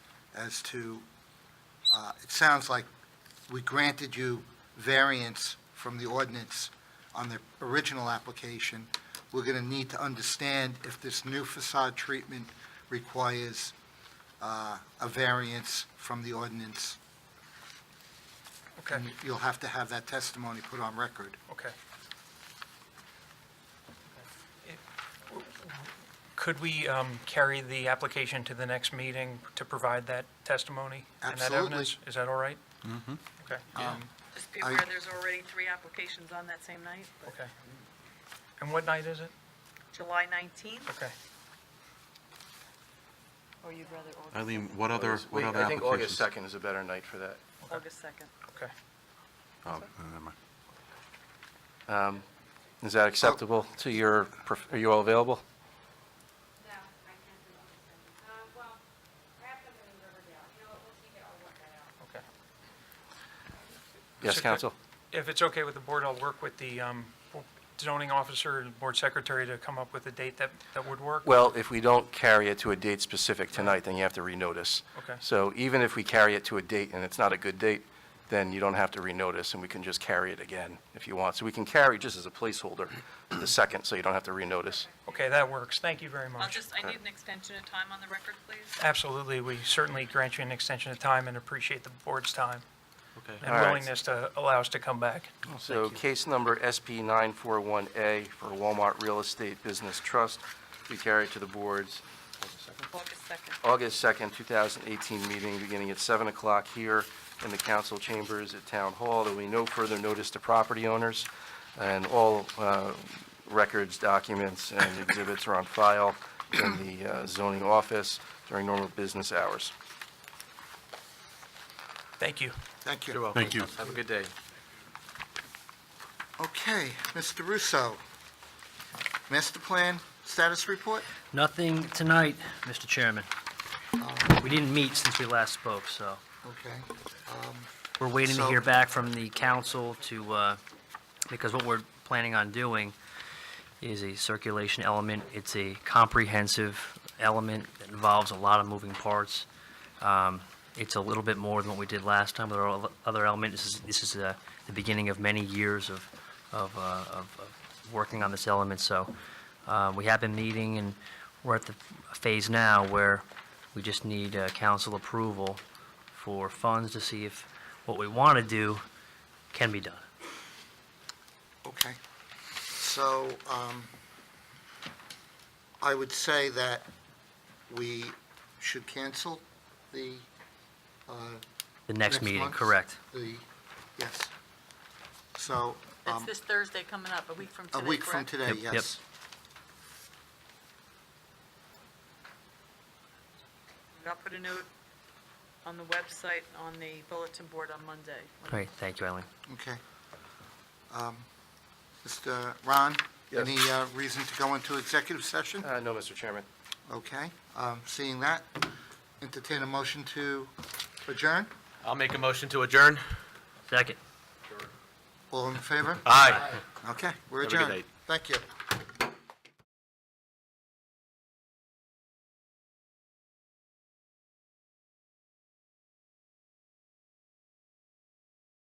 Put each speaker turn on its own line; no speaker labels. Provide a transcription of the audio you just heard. as to, uh, it sounds like we granted you variance from the ordinance on the original application. We're going to need to understand if this new facade treatment requires uh, a variance from the ordinance.
Okay,
And You'll have to have that testimony put on record.
okay. It- Could we um, carry the application to the next meeting to provide that testimony? and that
Absolutely.
evidence? Is that all right? Mm-hmm. Okay, um,
Just be
I-
aware, there's already three applications on that same night, but
okay. And what night is it?
July 19th,
Okay.
or you'd rather August,
Eileen, what other,
August-
what
wait,
other
I think August
applications?
2nd is a better night for that.
August 2nd.
Okay.
Oh, never mind.
Is that acceptable to your, pref- are you all available?
No, I can't do August seventh. Um, well, perhaps I'm in Riverdale, you know, what, we'll see if I'll work that out.
Okay.
Yes,
Mr. Cook?
counsel?
If it's okay with the board, I'll work with the um, zoning officer and board secretary to come up with a date that, that would work.
Well, if we don't carry it to a date specific tonight, then you have to renotice.
Okay.
So even if we carry it to a date and it's not a good date, then you don't have to renotice, and we can just carry it again if you want. So we can carry just as a placeholder to the 2nd, so you don't have to renotice.
Okay, that works. Thank you very much.
I'll just, uh, I need an extension of time on the record, please.
Absolutely, we certainly grant you an extension of time and appreciate the board's time and
All right.
willingness to allow us to come back.
So case number SP 941A for Walmart Real Estate Business Trust, we carry it to the boards
August 2nd.
August 2nd, 2018 meeting, beginning at 7 o'clock here in the council chambers at Town Hall. There will be no further notice to property owners, and all uh, records, documents, and exhibits are on file in the uh, zoning office during normal business hours.
Thank you.
Thank you.
Thank you.
Have a good day.
Okay, Mr. Russo, master plan status report?
Nothing tonight, Mr. Chairman. We didn't meet since we last spoke, so
Okay,
we're waiting to
So-
hear back from the council to, uh, because what we're planning on doing is a circulation element. It's a comprehensive element that involves a lot of moving parts. Um, It's a little bit more than what we did last time with our o- other element. This is, this is uh, the beginning of many years of, of, uh, of of working on this element, so uh, we have been meeting, and we're at the phase now where we just need uh, council approval for funds to see if what we want to do can be done.
okay. So um, I would say that we should cancel the, uh,
The next
Next
meeting,
month?
correct.
the, yes. So
That's
um,
this Thursday coming up, a week from
a
today,
week from
correct?
today,
Yep, yep.
yes.
I'll put a note on the website, on the bulletin board on Monday.
Great, thank you, Eileen.
Okay. Um, Mr. Ron,
Yes.
any uh, reason to go into executive session?
Uh, No, Mr. Chairman.
Okay, um, seeing that, entertain a motion to adjourn?
I'll make a motion to adjourn.
Second.
All in favor?
Aye.
Okay, we're
Have
Uh.
a good
adjourned.
night.
Thank you.